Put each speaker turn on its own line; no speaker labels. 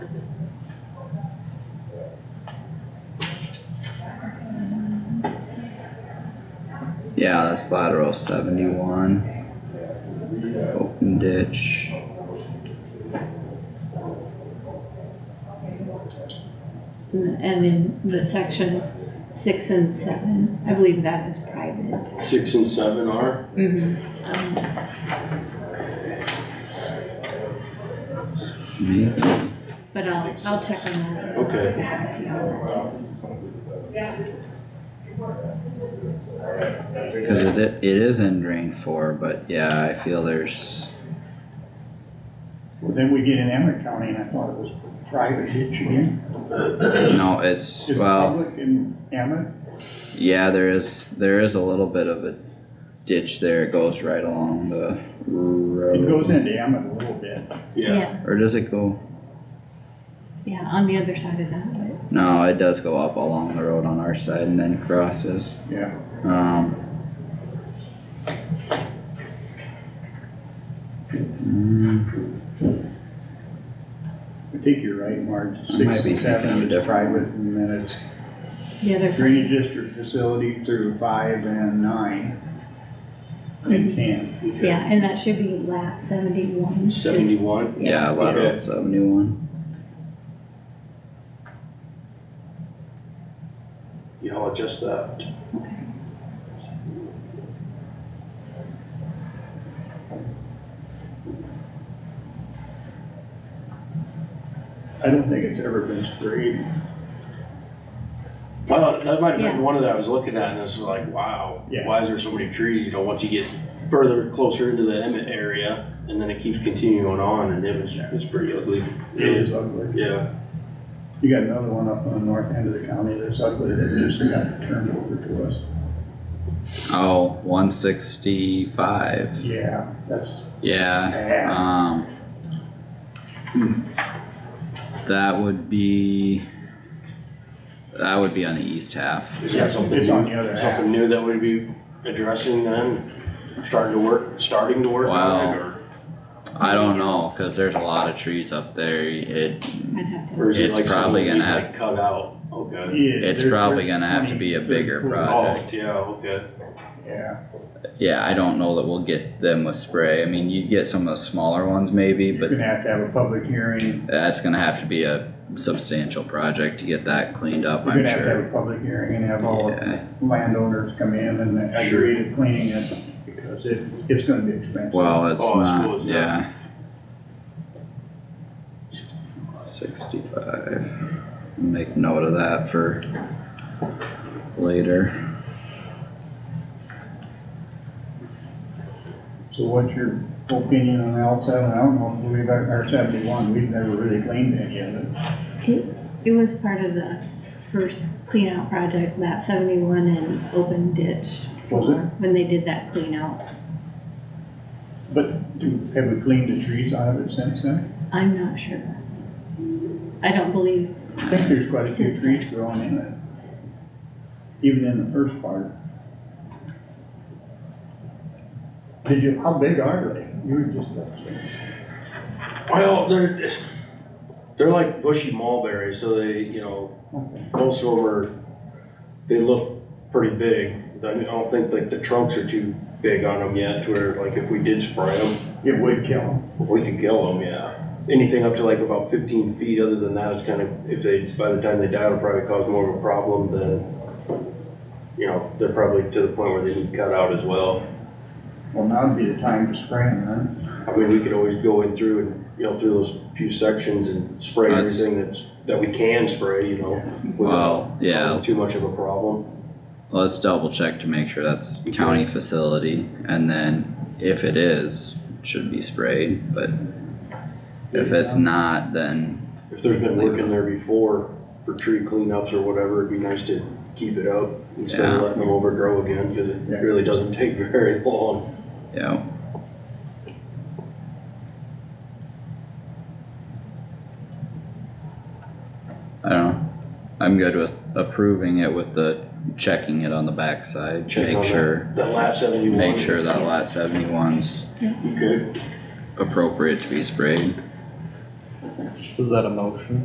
Yeah, that's lateral seventy-one. Open ditch.
And in the sections six and seven, I believe that is private.
Six and seven are,
Mm-hmm. But I'll, I'll check on that.
Okay.
Okay.
Cause it, i- it is in drain four, but yeah, I feel there's,
Well, Then we get in Emmett County and I thought it was private ditch again.
no, it's,
Is it
well,
public in Emmett?
yeah, there is, there is a little bit of a ditch there. It goes right along the
It goes
road.
into Emmett a little bit.
yeah,
Yeah,
Or does it go?
yeah, on the other side of that, but
No, it does go up along the road on our side and then crosses.
Yeah,
Um. Mm,
I think you're right, Marge.
I might
Six
be
and seven
thinking of
is private and then it's
the other,
drainage district facility through five and nine. And ten.
yeah, and that should be lat seventy-one. just-
seventy-one,
yeah, lateral seventy-one.
yeah, I'll adjust that.
Okay.
I don't think it's ever been sprayed.
Well, that might have
Yeah.
been one of that I was looking at and it's like, wow,
Yeah.
why is there so many trees? You know, once you get further, closer into the Emmett area and then it keeps continuing on and it was, it's pretty ugly.
It is ugly.
Yeah,
You got another one up on the north end of the county that's ugly that just got turned over to us.
Oh, one sixty-five,
Yeah, that's
yeah.
bad.
Um. That would be. That would be on the east half.
is that something?
It's on
new-
the other half.
Something new that we'd be addressing then, starting to work, starting to work on it or?
I don't know, cause there's a lot of trees up there. It,
I'd have to.
Or is it
It's
like
probably gonna
something that's,
have-
like cut out? Okay.
it's probably gonna have to be a bigger
Oh,
project.
yeah, okay.
Yeah,
Yeah, I don't know that we'll get them with spray. I mean, you'd get some of the smaller ones maybe,
you're
but
gonna have to have a public hearing,
that's gonna have to be a substantial project to get that cleaned up,
you're
I'm
gonna have to have
sure.
a public hearing and have all the
Yeah,
landowners come in and agree to cleaning it, because it, it's gonna be expensive.
well, uh, it's
Oh, I
not,
suppose not.
yeah. Sixty-five, make note of that for later.
So what's your opinion on L seven, I don't know, we've, our seventy-one, we've never really cleaned any of it.
It, it was part of the first clean out project, lap seventy-one and open ditch.
Was it?
When they did that clean out.
But do, have we cleaned the trees out of it since then?
I'm not sure. I don't believe,
I think there's quite a few
Since-
trees growing in it. Even in the first part. Did you, how big are they? You were just,
Well, they're it's- they're like bushy mulberries, so they, you know,
okay.
most of them are, they look pretty big. I mean, I don't think like the trunks are too big on them yet, to where like if we did spray them,
It would kill them.
we could kill them, yeah. Anything up to like about fifteen feet, other than that, it's kind of, if they, by the time they die, it'll probably cause more of a problem than, you know, they're probably to the point where they need cut out as well.
Well, now'd be the time to spray them,
I mean, we could always go in through and, you know, through those few sections and spray
That's-
everything that's, that we can spray, you know, without
Well, yeah,
causing too much of a problem.
Let's double check to make sure that's county facility, and then if it is, it should be sprayed, but if it's not, then,
If there's been work in there before for tree cleanups or whatever, it'd be nice to keep it up instead
Yeah.
of letting them overgrow again, cause
Yeah.
it really doesn't take very long.
you know, I don't know, I'm good with approving it with the checking it on the backside,
Check on
make
that-
sure,
That lap seventy-one.
make sure that lot seventy-one's
You could
appropriate to be sprayed.
Was that a motion?